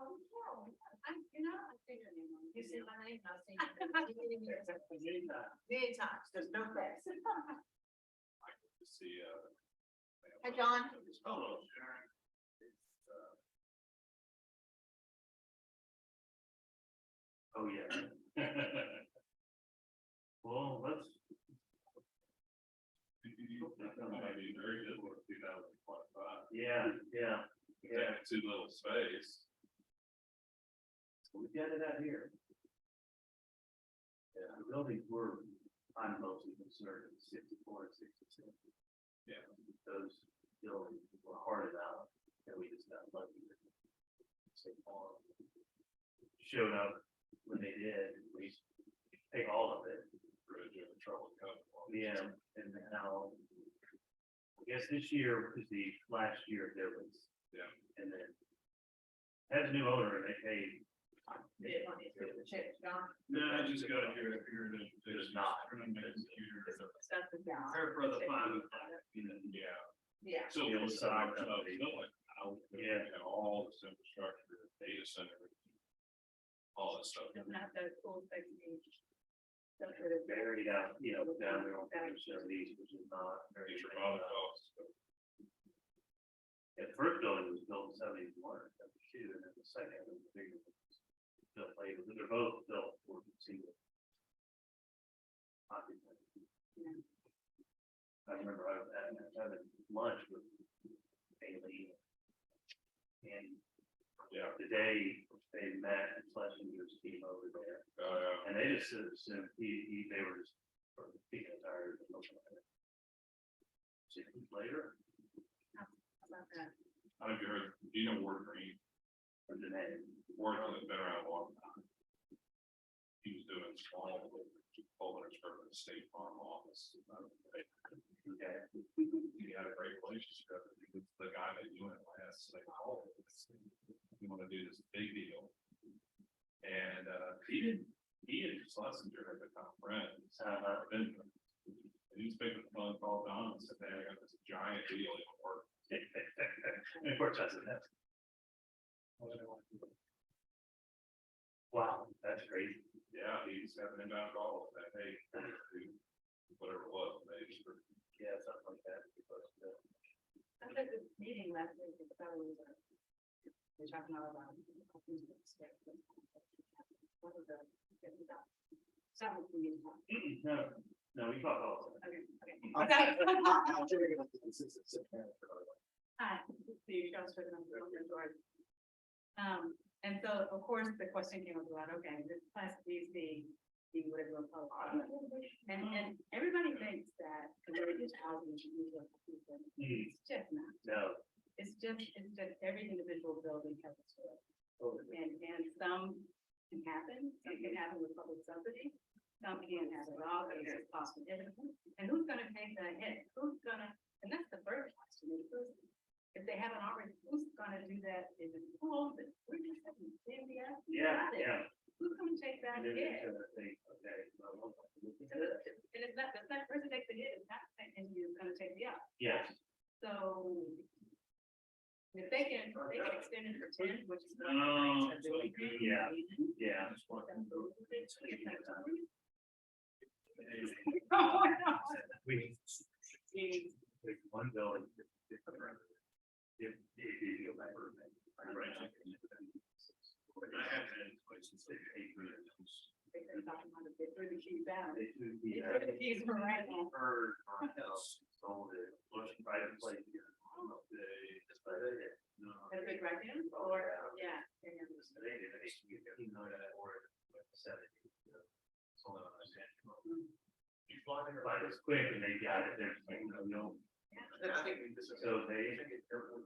Oh, no, I, you know, I say your name. wrong. You say my name, I'll say. your name. Many times. There's no facts. to see, uh. Hi, John. Hello, Sharon. It's, uh, Oh, yeah. Well, let's. very good for two thousand twenty-five. Yeah, yeah. Yeah, too little space. We got it out here. Yeah, the buildings were, I'm mostly concerned with sixty-four and sixty-six. Yeah. Those buildings were hearted out, and we just got lucky. that St. Paul Showed up when they did, and we paid all of it. Yeah, and now, I guess this year was the last year there was. Yeah. And then, as new owner, they paid Yeah, my name's Rita Chase, John. no, I just got here, I figured it was not. Prepare Stuff is down. for the final, you know. Yeah. Yeah. So Yeah, we'll it's start not up, gonna be- you know, like, how, you Yeah. know, all this infrastructure, data center. All this stuff. Doesn't have those cool things. Don't hurt it. buried out, you know, down there on page seventy, which is not very. Major model costs. Yeah, the first building was built in seventy-one, seventy-two, and then the second was bigger. Built later, but they're both built for single. occupancy. Yeah. I remember I was having, having lunch with Bailey. And Yeah, today, they met and Schlesinger's team over there. oh, yeah. And they just sort of assumed he, he, they were just, sort of being tired of looking at it. Six weeks later, How about that? I don't know if you heard, do you know Ward Green, or the name, Ward has been around a long time. He was doing small, holding for the state farm office. okay, He had a great relationship, he was the guy that you went last, like, oh, we wanna do this big deal. And, uh, he didn't, he and Schlesinger had become friends. uh, I've been to them. And he's making a phone call down and said, hey, I got this giant deal in the works. and of course, that's, that's, wow, that's crazy. Yeah, he's having inbound calls that, hey, whatever it was, maybe. Yeah, something like that. because, uh, I had this meeting last week with fellows. uh, They're talking all about. What are the? Some of them. No, no, we talk all the time. Okay, okay. Okay. Hi, the Charles Strickland, Golden Door. Um, and so, of course, the question came up about, okay, this class B is the, the whatever. we'll call it. And, and everybody thinks that the word is housing should be what people- Hmm, It's just not. No, It's just, it's just every individual building has a story. And, and some can happen, some can happen with public subsidy, some can not happen at all, but it's possible. And who's gonna take the hit? Who's gonna, and that's the first question, is who's, if they haven't already, who's gonna do that? Is it who owns it? We're just having India. yeah, yeah. Who's gonna take that And hit? then it's gonna think, okay, well, we'll have to look So at it. it's- And it's not, the that person takes the hit, it's not, and you're gonna take the up. Yes, So if they can, if they can extend it for ten, which is. No, I do agree. Oh, yeah. yeah. Oh, no. We, there's one building. that- that- If, if you go back. I have been in places. They're talking about it, they threw the keys out. They do They the, threw uh, the keys were right now. heard or else sold it, looked private place here. I don't know if they- that's about it. No. They're big right now, or, yeah. They did, they used to get fifteen hundred or seventy. you know, Sold it on a stand. You fly there. Like it's quick and they got it, they're like, no, no. I think this is. So they.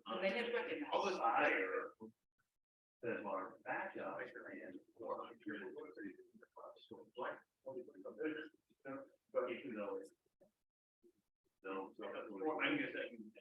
Oh, they didn't recognize. All this higher. That our backyard and. But you know. So. Well, I guess that.